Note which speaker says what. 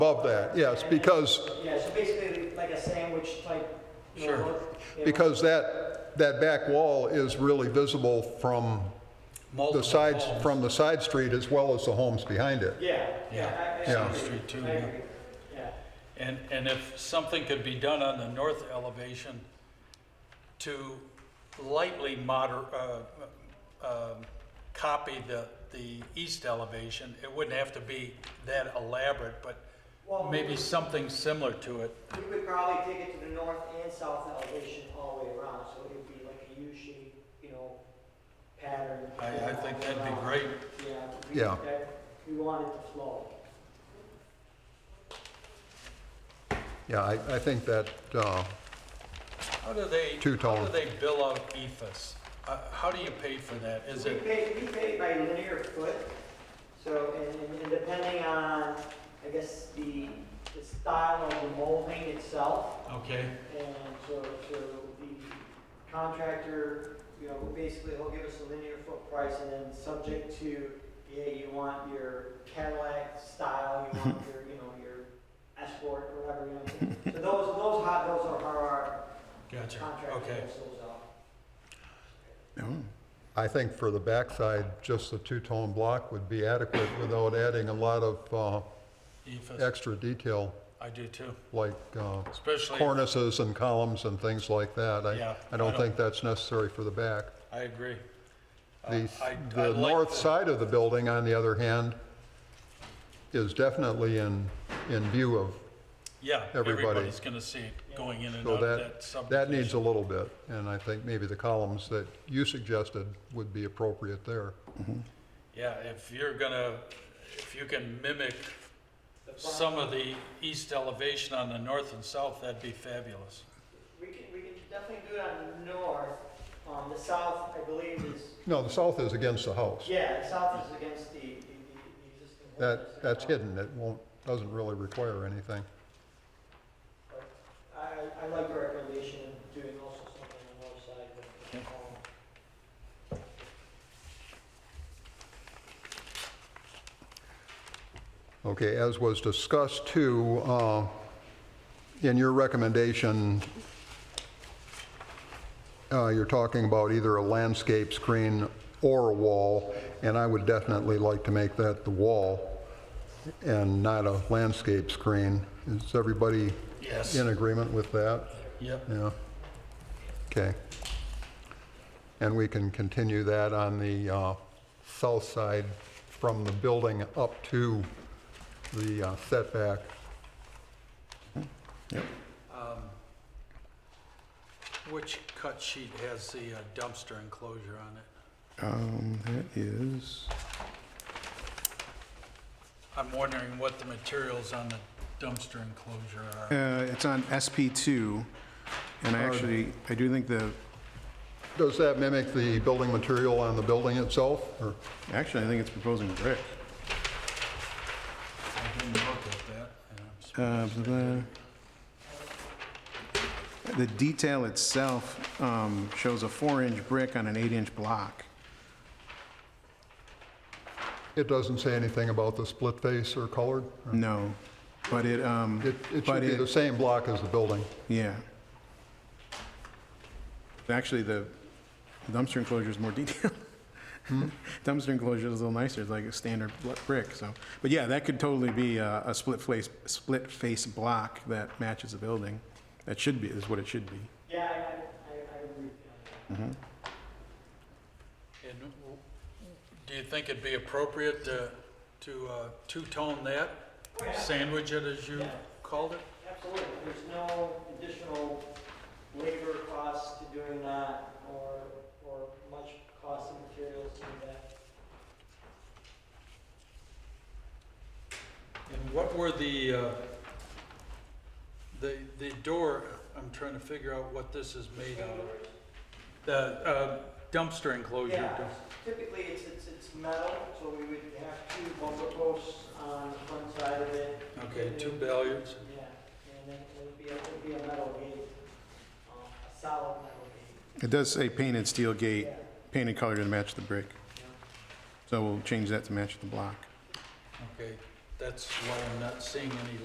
Speaker 1: above that, yes, because,
Speaker 2: Yeah, so basically like a sandwich type. you know,
Speaker 3: Sure.
Speaker 2: look, you know.
Speaker 1: because that, that back wall is really visible from the
Speaker 3: Multiple
Speaker 1: sides,
Speaker 3: homes.
Speaker 1: from the side street as well as the homes behind it.
Speaker 2: Yeah, yeah. I- I
Speaker 1: Yeah.
Speaker 2: agree.
Speaker 3: Street too,
Speaker 2: I
Speaker 3: yeah.
Speaker 2: agree. Yeah.
Speaker 3: And, and if something could be done on the north elevation to lightly moder, uh, um, copy the, the east elevation, it wouldn't have to be that elaborate, but
Speaker 2: Well,
Speaker 3: maybe something similar to it.
Speaker 2: We would probably take it to the north and south elevation all the way around, so it would be like a U shape, you know, pattern.
Speaker 3: I, I think
Speaker 2: all the way
Speaker 3: that'd be
Speaker 2: around.
Speaker 3: great.
Speaker 2: Yeah. we-
Speaker 1: Yeah.
Speaker 2: that- We want it to flow.
Speaker 1: Yeah, I, I think that, uh,
Speaker 3: How do they, how
Speaker 1: Two-tone.
Speaker 3: do they bill out EFS? Uh, how do you pay for that? Is
Speaker 2: We
Speaker 3: it,
Speaker 2: pay, we pay by linear foot, so, and- and, and depending on, I guess, the, the style of the molding itself,
Speaker 3: okay,
Speaker 2: And so, so the contractor, you know, basically he'll give us a linear foot price and then subject to, yeah, you want your Cadillac style, you want your, you know, your Escort, whatever, you know. what I'm saying? So those, those hot, those are how our
Speaker 3: gotcha,
Speaker 2: contractor
Speaker 3: okay.
Speaker 2: pulls those out.
Speaker 1: I think for the backside, just the two-tone block would be adequate without adding a lot of,
Speaker 3: E
Speaker 1: uh,
Speaker 3: EFS,
Speaker 1: extra detail
Speaker 3: I do too,
Speaker 1: like, uh,
Speaker 3: especially.
Speaker 1: cornices and columns and things like that.
Speaker 3: Yeah,
Speaker 1: I, I
Speaker 3: I
Speaker 1: don't
Speaker 3: don't-
Speaker 1: think that's necessary for the back.
Speaker 3: I agree. Uh,
Speaker 1: The,
Speaker 3: I- I
Speaker 1: the
Speaker 3: like
Speaker 1: north
Speaker 3: the-
Speaker 1: side of the building, on the other hand, is definitely in, in view of,
Speaker 3: Yeah,
Speaker 1: everybody.
Speaker 3: everybody's gonna see it going in and
Speaker 1: so
Speaker 3: out of that
Speaker 1: that, that
Speaker 3: subdivision.
Speaker 1: needs a little bit. And I think maybe the columns that you suggested would be appropriate there.
Speaker 3: Yeah, if you're gonna, if you can mimic
Speaker 2: The front-
Speaker 3: some of the east elevation on the north and south, that'd be fabulous.
Speaker 2: We can, we can definitely do it on the north, um, the south, I believe is,
Speaker 1: No, the south is against the house.
Speaker 2: yeah, the south is against the, the, the the existing. wall.
Speaker 1: That, that's hidden, it won't, doesn't really require anything.
Speaker 2: I, I like the recommendation of doing also something on the north side, but, um,
Speaker 1: Okay, as was discussed too, uh, in your recommendation, uh, you're talking about either a landscape screen or a wall, and I would definitely like to make that the wall and not a landscape screen. Is everybody
Speaker 3: Yes.
Speaker 1: in agreement with that?
Speaker 3: Yep,
Speaker 1: Yeah. Okay. And we can continue that on the uh, south side from the building up to the uh, setback.
Speaker 3: which cut sheet has the uh, dumpster enclosure on it?
Speaker 4: Um, that is,
Speaker 3: I'm wondering what the materials on the dumpster enclosure are.
Speaker 4: uh, it's on SP two, and I actually, I do think the,
Speaker 1: Does that mimic the building material on the building itself? Or,
Speaker 4: actually, I think it's proposing brick.
Speaker 3: I didn't look at that. and I'm surprised.
Speaker 4: Uh, blah, blah. The detail itself, um, shows a four-inch brick on an eight-inch block.
Speaker 1: it doesn't say anything about the split face or colored? or-
Speaker 4: No, but it, um,
Speaker 1: It it should
Speaker 4: but
Speaker 1: be
Speaker 4: it-
Speaker 1: the same block as the building.
Speaker 4: Yeah. Actually, the dumpster enclosure is more detailed. Dumpster enclosure is a little nicer, it's like a standard bl- brick, so. But yeah, that could totally be a, a split face, split face block that matches the building. That should be, is what it should be.
Speaker 2: yeah, I, I, I- I agree. on
Speaker 3: And w- do you think it'd be appropriate to, to uh, two-tone that?
Speaker 2: that. Oh,
Speaker 3: Sandwich it, as you
Speaker 2: Yeah.
Speaker 3: called it?
Speaker 2: yeah, Absolutely, there's no additional labor costs to doing that or, or much cost of materials to do that.
Speaker 3: And what were the, uh, the, the door, I'm trying to figure out what this is made out of. The uh, dumpster enclosure.
Speaker 2: Yeah,
Speaker 3: door.
Speaker 2: typically it's, it's, it's metal, so we would have two bumper posts on the front side of it.
Speaker 3: Okay,
Speaker 2: and
Speaker 3: two
Speaker 2: then-
Speaker 3: billiards.
Speaker 2: Yeah, and then it would be, a- it would be a metal gate, um, a solid metal gate.
Speaker 4: It does say painted steel gate,
Speaker 2: Yeah.
Speaker 4: painted color to match the brick,
Speaker 2: yeah.
Speaker 4: so we'll change that to match the block.
Speaker 3: Okay, that's why I'm not seeing any